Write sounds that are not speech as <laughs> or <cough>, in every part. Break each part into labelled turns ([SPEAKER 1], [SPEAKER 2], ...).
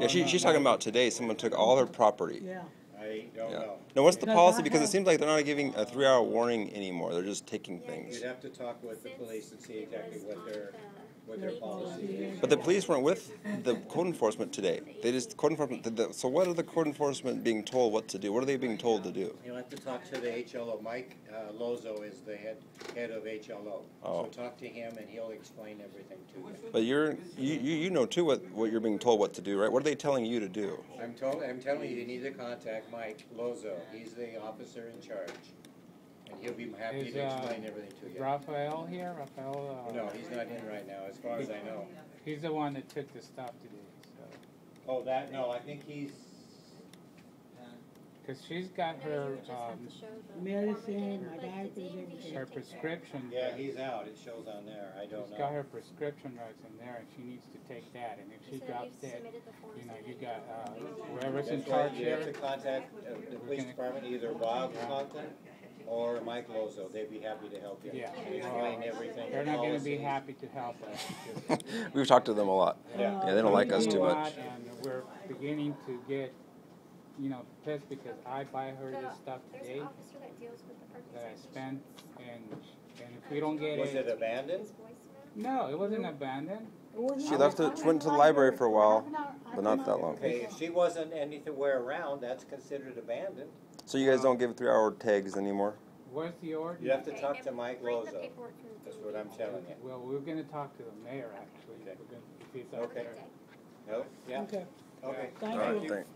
[SPEAKER 1] Yeah, she, she's talking about today. Someone took all her property.
[SPEAKER 2] Yeah,
[SPEAKER 3] I don't
[SPEAKER 1] Yeah.
[SPEAKER 3] know.
[SPEAKER 1] Now, what's the
[SPEAKER 2] Does
[SPEAKER 1] policy?
[SPEAKER 2] not
[SPEAKER 1] Because it
[SPEAKER 2] have-
[SPEAKER 1] seems like they're not giving a three-hour warning anymore. They're just taking things.
[SPEAKER 3] You'd have to talk with the police and see exactly what their, what their policy is.
[SPEAKER 1] But the police weren't with the code enforcement today. They just code enforcement. Did the, so what are the code enforcement being told what to do? What are they being told to do?
[SPEAKER 3] You'll have to talk to the HLO. Mike uh, Lozo is the head, head of HLO.
[SPEAKER 1] Oh.
[SPEAKER 3] So talk to him and he'll explain everything to you.
[SPEAKER 1] But you're you, you, you know too what, what you're being told what to do, right? What are they telling you to do?
[SPEAKER 3] I'm told, I'm telling you, you need to contact Mike Lozo. He's the officer in charge. And he'll be happy
[SPEAKER 4] Is,
[SPEAKER 3] to
[SPEAKER 4] uh,
[SPEAKER 3] explain everything to you.
[SPEAKER 4] Raphael here, Raphael, uh,
[SPEAKER 3] No, he's not in right now, as far as I know.
[SPEAKER 4] he's the one that took the stop today, so.
[SPEAKER 3] Oh, that, no, I think he's,
[SPEAKER 4] Cause she's got her, um,
[SPEAKER 2] medicine, my diapers, everything.
[SPEAKER 4] her prescription.
[SPEAKER 3] yeah, he's out. It shows on there. I don't
[SPEAKER 4] She's got
[SPEAKER 3] know.
[SPEAKER 4] her prescription drugs in there and she needs to take that and if she drops that, you know, you got, uh, whoever's in
[SPEAKER 3] That's why
[SPEAKER 4] charge
[SPEAKER 3] you have to
[SPEAKER 4] here.
[SPEAKER 3] contact uh, the police department, either Bob Conklin or Mike Lozo. They'd be happy to help you.
[SPEAKER 4] Yeah.
[SPEAKER 3] Explain everything.
[SPEAKER 4] They're not gonna be
[SPEAKER 3] policies.
[SPEAKER 4] happy to help us.
[SPEAKER 1] <laughs>
[SPEAKER 4] because
[SPEAKER 1] We've talked to them a lot.
[SPEAKER 3] Yeah.
[SPEAKER 1] Yeah, they don't like us
[SPEAKER 4] we
[SPEAKER 1] too
[SPEAKER 4] do
[SPEAKER 1] much.
[SPEAKER 4] a lot, And we're beginning to get, you know, pissed because I buy her this stuff today that I spent and, and if we don't get
[SPEAKER 3] Was it
[SPEAKER 4] it,
[SPEAKER 3] abandoned?
[SPEAKER 4] no, it wasn't abandoned.
[SPEAKER 1] She left. The, she went to the library for a while, but not that long.
[SPEAKER 3] Okay, if she wasn't anywhere around, that's considered abandoned.
[SPEAKER 1] So you guys don't give three-hour tags anymore.
[SPEAKER 4] Where's the order?
[SPEAKER 3] You have to talk to Mike Lozo. That's what I'm telling you.
[SPEAKER 4] Well, we're gonna talk to the mayor, actually,
[SPEAKER 3] Okay.
[SPEAKER 4] we're gonna, if he's out
[SPEAKER 3] Okay.
[SPEAKER 4] there.
[SPEAKER 3] No? Yeah,
[SPEAKER 2] Okay,
[SPEAKER 3] okay.
[SPEAKER 1] All
[SPEAKER 2] thank
[SPEAKER 1] right,
[SPEAKER 2] you.
[SPEAKER 1] thanks.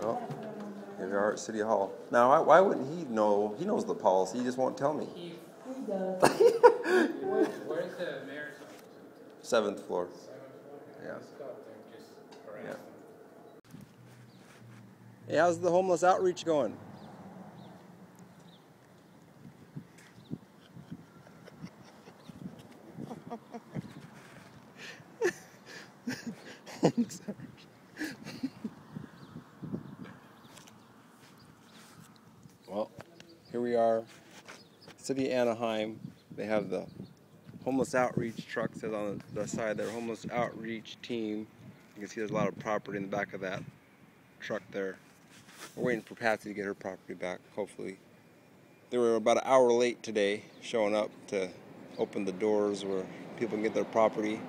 [SPEAKER 1] Well, here we are at City Hall. Now, why, why wouldn't he know? He knows the policy. He just won't tell me.
[SPEAKER 4] Where's the mayor's office?
[SPEAKER 1] Seventh floor. Yeah. Yeah. Hey, how's the homeless outreach going? <laughs> well, here we are, City Anaheim. They have the homeless outreach truck says on the side there, homeless outreach team. You can see there's a lot of property in the back of that truck there. We're waiting for Patsy to get her property back, hopefully. They were about an hour late today showing up to open the doors where people can get their property.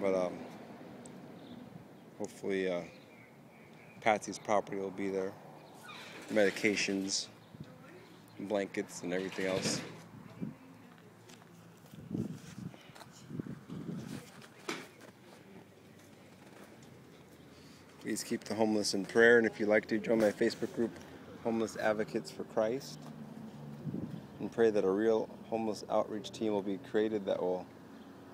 [SPEAKER 1] But um, hopefully uh, Patsy's property will be there. Medications, blankets, and everything else. Please keep the homeless in prayer, and if you'd like to, join my Facebook group, Homeless Advocates for Christ, and pray that a real homeless outreach team will be created that will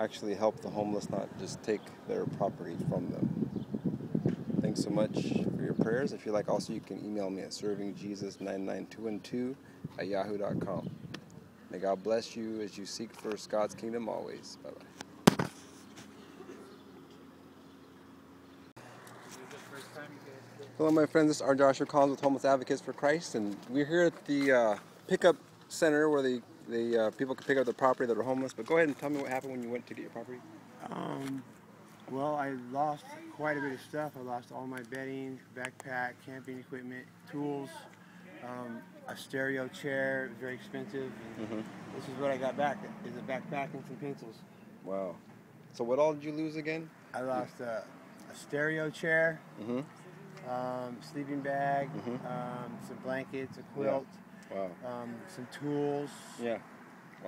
[SPEAKER 1] actually help the homeless, not just take their property from them. Thanks so much for your prayers. If you like, also, you can email me at servingjesus99212 at yahoo.com. May God bless you as you seek first God's kingdom always. Bye bye. Hello, my friends. This is R. Joshua Collins with Homeless Advocates for Christ, and we're here at the uh, pickup center where the, the uh, people can pick up the property that are homeless. But go ahead and tell me what happened when you went to get your property.
[SPEAKER 5] Um, well, I lost quite a bit of stuff. I lost all my bedding, backpack, camping equipment, tools, um, a stereo chair. It was very expensive. And This is what I got back: is a backpack and some pencils.
[SPEAKER 1] Wow. So what all did you lose again?
[SPEAKER 5] I lost a, a stereo chair,
[SPEAKER 1] Mhm.
[SPEAKER 5] um, sleeping bag, um, some blankets, a quilt,
[SPEAKER 1] Wow.
[SPEAKER 5] um, some tools,
[SPEAKER 1] Yeah. Uh,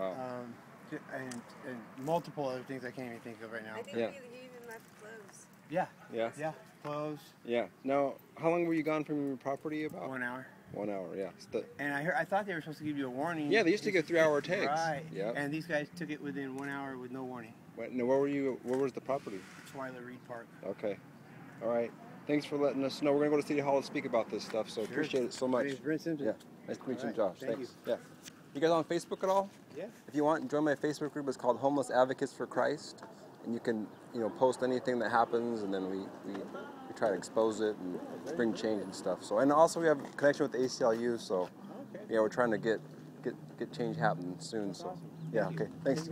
[SPEAKER 1] Wow.
[SPEAKER 5] um, j- and, and multiple other things I can't even think of right now.
[SPEAKER 6] I think
[SPEAKER 1] Yeah.
[SPEAKER 6] you, you even left clothes.
[SPEAKER 5] Yeah,
[SPEAKER 1] Yeah.
[SPEAKER 5] yeah, clothes.
[SPEAKER 1] Yeah. Now, how long were you gone from your property? About
[SPEAKER 5] One hour.
[SPEAKER 1] One hour. Yeah. So the-
[SPEAKER 5] And I heard, I thought they were supposed to give you a warning.
[SPEAKER 1] yeah. They used to
[SPEAKER 5] This-
[SPEAKER 1] give three-hour tags.
[SPEAKER 5] Right.
[SPEAKER 1] Yeah.
[SPEAKER 5] And these guys took it within one hour with no warning.
[SPEAKER 1] Wait, now, where were you? Where was the property?
[SPEAKER 5] Twyla Reed Park.
[SPEAKER 1] Okay. All right. Thanks for letting us know. We're gonna go to City Hall and speak about this stuff. So
[SPEAKER 5] Sure.
[SPEAKER 1] appreciate it so
[SPEAKER 5] My
[SPEAKER 1] much.
[SPEAKER 5] name's Brent Simpson.
[SPEAKER 1] Yeah. Nice to meet you,
[SPEAKER 5] Alright,
[SPEAKER 1] Josh.
[SPEAKER 5] thank
[SPEAKER 1] Thanks. Yeah. You guys on Facebook at all?
[SPEAKER 5] Yeah.
[SPEAKER 1] If you want, join my Facebook group. It's called Homeless Advocates for Christ, and you can you know post anything that happens, and then we we, we try to expose it and bring change and stuff. So and also we have a connection with the ACLU. So
[SPEAKER 5] Okay.
[SPEAKER 1] yeah, we're trying to get get get change happening soon. So
[SPEAKER 5] awesome.
[SPEAKER 1] yeah.
[SPEAKER 5] Thank you.
[SPEAKER 1] Okay. Thanks.